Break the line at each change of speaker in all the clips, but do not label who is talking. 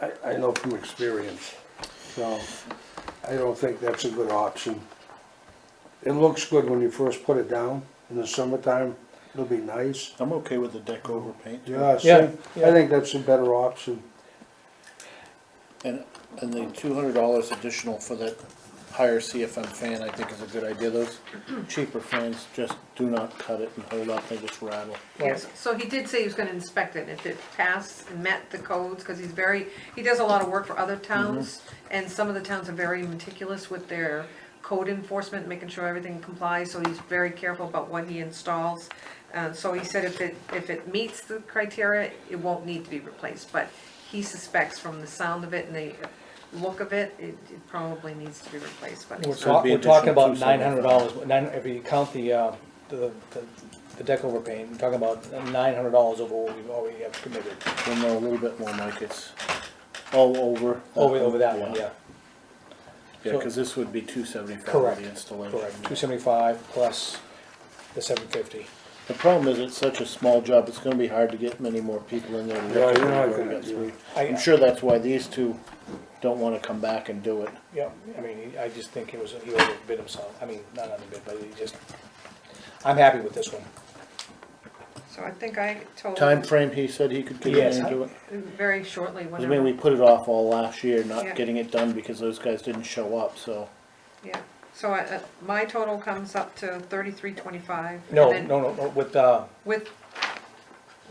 I, I know from experience, so I don't think that's a good option. It looks good when you first put it down, in the summertime, it'll be nice.
I'm okay with the deck over paint. too.
Yeah, I
Yeah,
think- I
yeah.
think that's a better option.
And, and the two hundred dollars additional for that higher CFM fan, I think is a good idea, those cheaper fans just do not cut it and hold up, they just rattle.
Yes, so he did say he was gonna inspect it, if it passed and met the codes, cause he's very, he does a lot of work for other towns,
Mm-hmm.
and some of the towns are very meticulous with their code enforcement, making sure everything complies, so he's very careful about what he installs. Uh, so he said if it, if it meets the criteria, it won't need to be replaced, but he suspects from the sound of it and the look of it, it, it probably needs to be replaced, but
We're
it's
It'd
talk-
not,
be
we're talking
additional
about
two
nine hundred
seventy-five.
dollars, nine, if you count the, uh, the, the- the deck over paint, we're talking about nine hundred dollars over what we've already have committed,
Well, no, a little bit more, Mike, it's all over.
over, over that one, yeah,
Yeah, cause this would be two seventy-five for
Correct,
the installation.
correct, two seventy-five plus the seven fifty.
The problem is, it's such a small job, it's gonna be hard to get many more people in there. to
Yeah,
look
you're
at
not
it.
gonna do it.
I'm sure that's why these two don't wanna come back and do it.
Yeah, I mean, he- I just think he was, he overbid himself, I mean, not underbid, but he just, I'm happy with this one.
so I think I told
Time
him
frame, he said he could get in
Oh. Yes,
and
I-
do it.
very shortly,
I
whenever.
mean, we put it off all last year,
Yeah.
not getting it done because those guys didn't show up, so.
Yeah, so I, uh, my total comes up to thirty-three twenty-five.
No, no, no, no, with, uh,
With,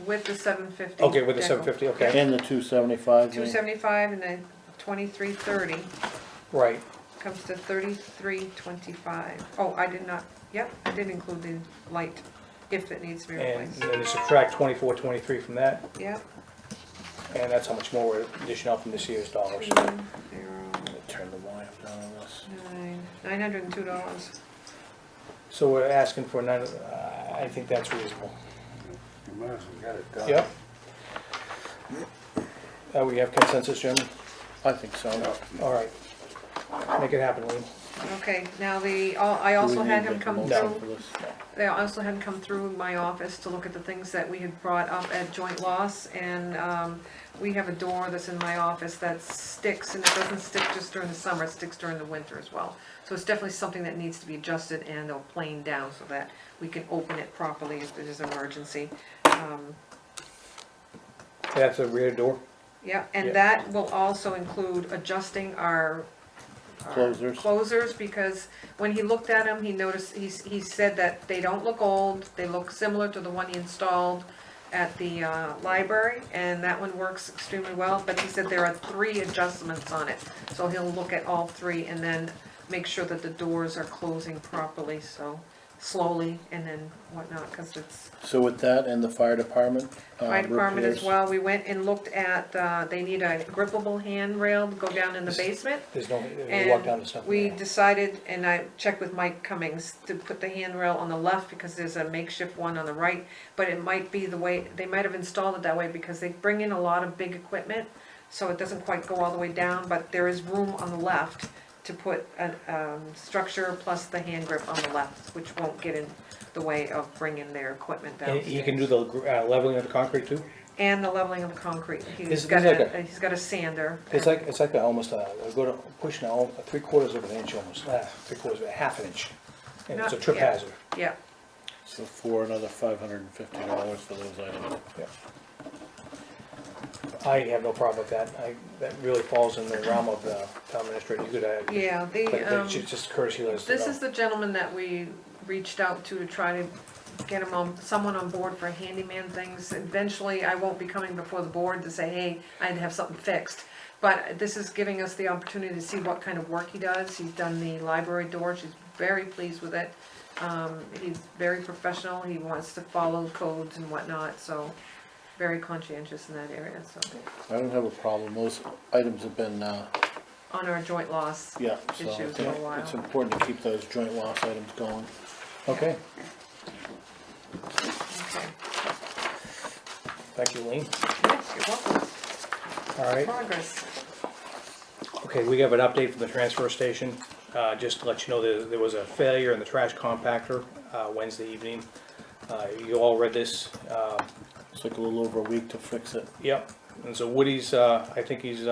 with the seven fifty.
okay, with the seven fifty, okay,
And the two seventy-five,
Two seventy-five and then twenty-three thirty
right,
comes to thirty-three twenty-five. Oh, I did not, yep, I did include the light, if it needs to be
and
replaced.
then you subtract twenty-four, twenty-three from that,
Yep.
and that's how much more we're dishing out from this year's dollars.
Nine, zero,
turn the Y up down on this.
nine, nine hundred and two dollars.
So we're asking for nine, uh, I think that's reasonable.
You might as well get it done.
Yep. Uh, we have consensus, Jim?
I think so.
All right. Make it happen, Lean.
Okay, now the, al-
Do
I
we
also had
need
him
to
come
make
through.
a motion for this?
They also had come through my office to look at the things that we had brought up at joint loss, and, um, we have a door that's in my office that sticks, and it doesn't stick just during the summer, it sticks during the winter as well. So it's definitely something that needs to be adjusted and or planed down so that we can open it properly if there's an emergency. Um,
That's the rear door?
yeah,
Yeah.
and that will also include adjusting our. our
Closers.
Closers, because when he looked at them, he noticed, he, s- he said that they don't look old, they look similar to the one he installed at the, uh, library, and that one works extremely well, but he said there are three adjustments on it. So he'll look at all three and then make sure that the doors are closing properly, so slowly and then whatnot, cause it's
So with that and the fire department. uh,
Fire department as
repairs,
well, we went and looked at, uh, they need a grippable handrail to go down in the basement.
There's no, we walk down
And
the stuff.
we decided, and I checked with Mike Cummings, to put the handrail on the left because there's a makeshift one on the right. But it might be the way, they might have installed it that way because they bring in a lot of big equipment, so it doesn't quite go all the way down, but there is room on the left to put a, um, structure plus the hand grip on the left, which won't get in the way of bringing their equipment
And
downstairs
he can do the gr- uh, leveling of the concrete too?
and the leveling of the concrete.
This-
He's
this
got
is like
a,
a-
he's got a sander.
It's like, it's like a- almost a, I go to, pushing a, three quarters of an inch almost, uh, three quarters, of a half an inch. And it's a
Not-
trip
yeah.
hazard.
Yeah,
So for another five hundred and fifty dollars for those items.
Yeah. I have no problem with that. I, that really falls in the realm of the town administrator. You could, uh,
yeah,
But
the,
they
um,
should just courtesy let us know.
this is the gentleman that we reached out to to try to get him on, someone on board for handyman things. Eventually, I won't be coming before the board to say, hey, I had to have something fixed. But this is giving us the opportunity to see what kind of work he does. He's done the library door, she's very pleased with it. Um, he's very professional, he wants to follow codes and whatnot, so very conscientious in that area, so.
I don't have a problem, those items have been, uh,
on our joint loss.
yeah, so I
Issues
think
for a while.
it's important to keep those joint loss items going.
Okay,
Okay.
thank you, Lean.
Yes, you're welcome.
All right,
Progress.
okay, we have an update from the transfer station. Uh, just to let you know, there, there was a failure in the trash compactor, uh, Wednesday evening. Uh, you all read this, uh,
It's like a little over a week to fix it.
yep, and so Woody's, uh, I think he's,